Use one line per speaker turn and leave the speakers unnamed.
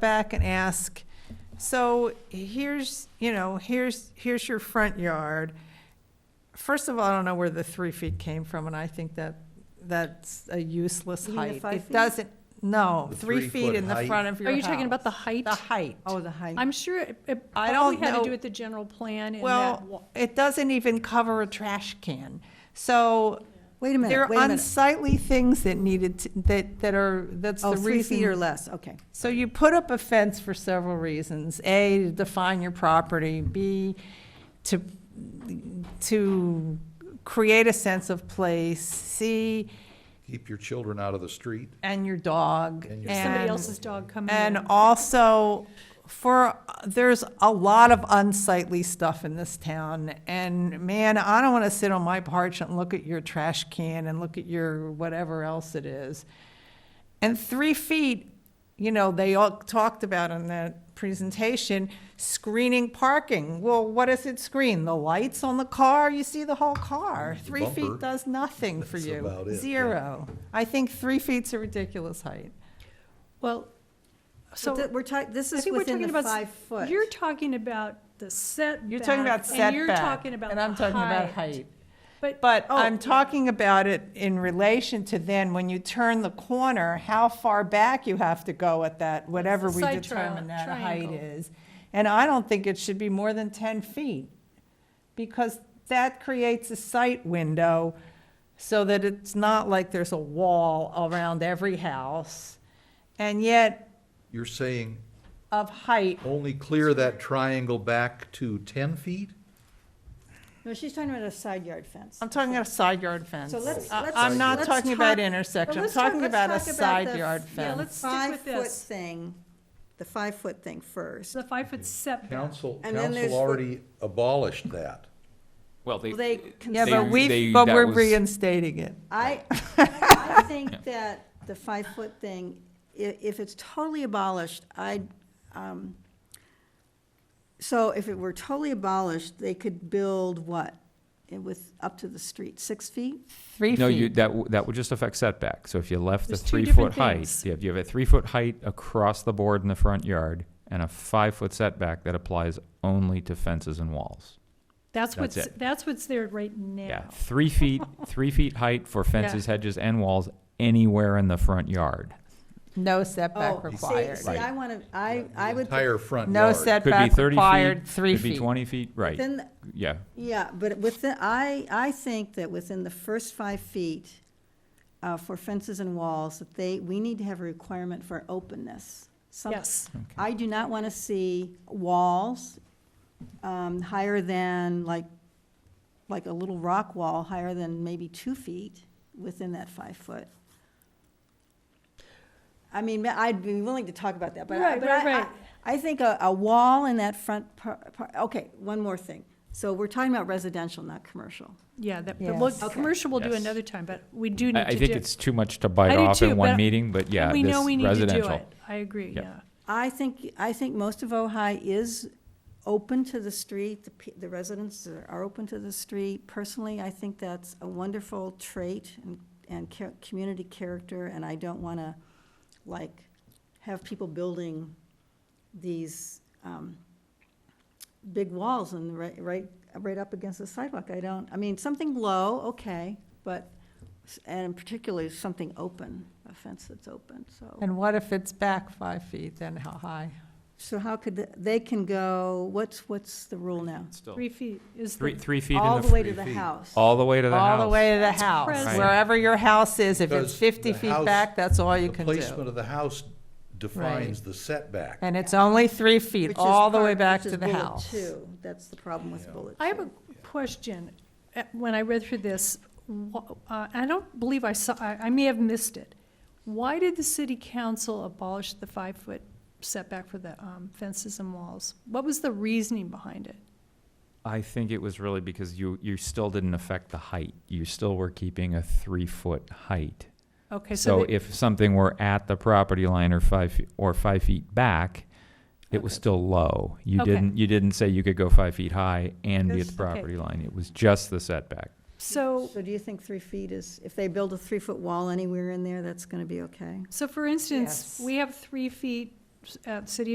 back and ask, so here's, you know, here's, here's your front yard. First of all, I don't know where the three feet came from, and I think that, that's a useless
You mean the
height.
five
It
feet?
doesn't, no,
The
three feet
three-foot
in the
height?
front of your
Are
house.
you talking about the height?
The height.
Oh, the height.
I'm sure it it
I don't
probably had
know.
to do with the general plan and that. wa-
Well, it doesn't even cover a trash can. So
Wait a
there
minute,
are
wait a minute.
unsightly things that needed, to- that, that are, that's the
Oh,
reason.
three feet or less, okay.
So you put up a fence for several reasons. A, to define your property. B, to, to create a sense of place. C,
Keep your children out of the street.
and your dog.
And your-
Somebody
and-
else's dog coming in.
And also, for, there's a lot of unsightly stuff in this town. And man, I don't want to sit on my porch and look at your trash can and look at your whatever else it is. And three feet, you know, they all talked about in that presentation, screening parking. Well, what does it screen? The lights on the car? You see the whole car.
The
Three feet
bumper.
does nothing for
That's
you.
about it, yeah.
Zero. I think three feet's a ridiculous height.
Well,
So
so
we're talking, this
I
is
think we're
within
talking
the
about,
five
s-
foot.
you're talking about the setback.
You're talking about setback.
And you're talking about
And I'm talking about
the
height.
But-
But
oh,
I'm
yeah.
talking about it in relation to then, when you turn the corner, how far back you have to go at that, whatever we
side
determine
trial-
that height
triangle.
is. And I don't think it should be more than ten feet, because that creates a sight window so that it's not like there's a wall around every house. And yet,
You're saying
of height,
only clear that triangle back to 10 feet?
No, she's talking about a side yard fence.
I'm talking about a side yard fence.
So let's-
I-
let's-
I'm not
let's
talking about
talk-
intersection,
Well,
I'm
let's talk-
talking
let's
about a
talk about
side
the-
yard
Yeah,
fence.
let's stick with
Five-foot
this.
thing, the five-foot thing first.
The five-foot setback.
Council,
And then there's
council
the-
already abolished that.
Well, they,
They,
Yeah,
They-
but
consider-
we,
they-
but
that
we're
was-
reinstating it.
I, I think that the five-foot thing, i- if it's totally abolished, I, um, so if it were totally abolished, they could build what? And With, up to the street, six feet?
Three
no, you,
feet.
that, w- that would just affect setback. So if you left the
There's two
three
different
foot height,
things.
you have, you have a three foot height across the board in the front yard and a five foot setback that applies only to fences and walls.
That's
That's
what's,
it.
that's what's there right
Yeah,
now.
three feet, three feet height for fences, hedges, and walls anywhere in the front yard.
No
Oh,
setback
see-
required.
See, I want to, I,
The
I would,
Entire front
No
yard.
Could be
setback
thirty
required,
feet,
three
could be
feet.
twenty feet, right,
then,
yeah.
yeah, but within, I, I think that within the first five feet uh, for fences and walls, that they, we need to have a requirement for openness. Some-
Yes.
I do not want to see walls um, higher than, like, like a little rock wall higher than maybe two feet within that five foot. I mean, ma- I'd be willing to talk about that, but I,
Right,
but
right,
I- I,
right.
I think a, a wall in that front part, okay, one more thing. So we're talking about residential, not commercial.
Yeah, that,
Yes.
but look,
Okay.
commercial we'll do
Yes.
another time, but we do
I,
need
I
to do.
think it's too much to bite
I do
off
too,
in one
but-
meeting, but yeah,
and we know we
this
need to do
residential.
it. I agree,
Yeah.
yeah.
I think, I think most of Ojai is open to the street, the, pe- the residents are are open to the street. Personally, I think that's a wonderful trait and, and cha- community character, and I don't want to, like, have people building these, um, big walls and right, right, right up against the sidewalk. I don't, I mean, something low, okay, but, s- and particularly something open, a fence that's open, so.
And what if it's back five feet, then how high?
So how could, th- they can go, what's, what's the rule now?
Still,
Three feet is
three,
the,
three feet in
All
the
the
fr-
way to
three
the
feet.
house.
all the way to the house.
All the way to the house,
present.
wherever your house is, if it's
Because
fifty
the
feet
house-
back, that's all you
The
can
placement
do.
of the house defines the setback.
And it's only three feet,
Which is
all the
part-
way back to
which
the
is bullet
house.
two. That's the problem with bullet two.
I have a question. Uh, When I read through this, wh- uh, I don't believe I saw, I I may have missed it. Why did the city council abolish the five-foot setback for the um, fences and walls? What was the reasoning behind it?
I think it was really because you, you still didn't affect the height. You still were keeping a three-foot height.
Okay,
So
so, they-
if something were at the property line or five, fe- or five feet back, it was
Okay.
still low. You
Okay.
didn't, you didn't say you could go five feet high and be at the
Yes, okay.
property line. It was just the setback.
so,
So do you think three feet is, if they build a three-foot wall anywhere in there, that's going to be okay?
so for instance,
Yes.
we have three feet at City of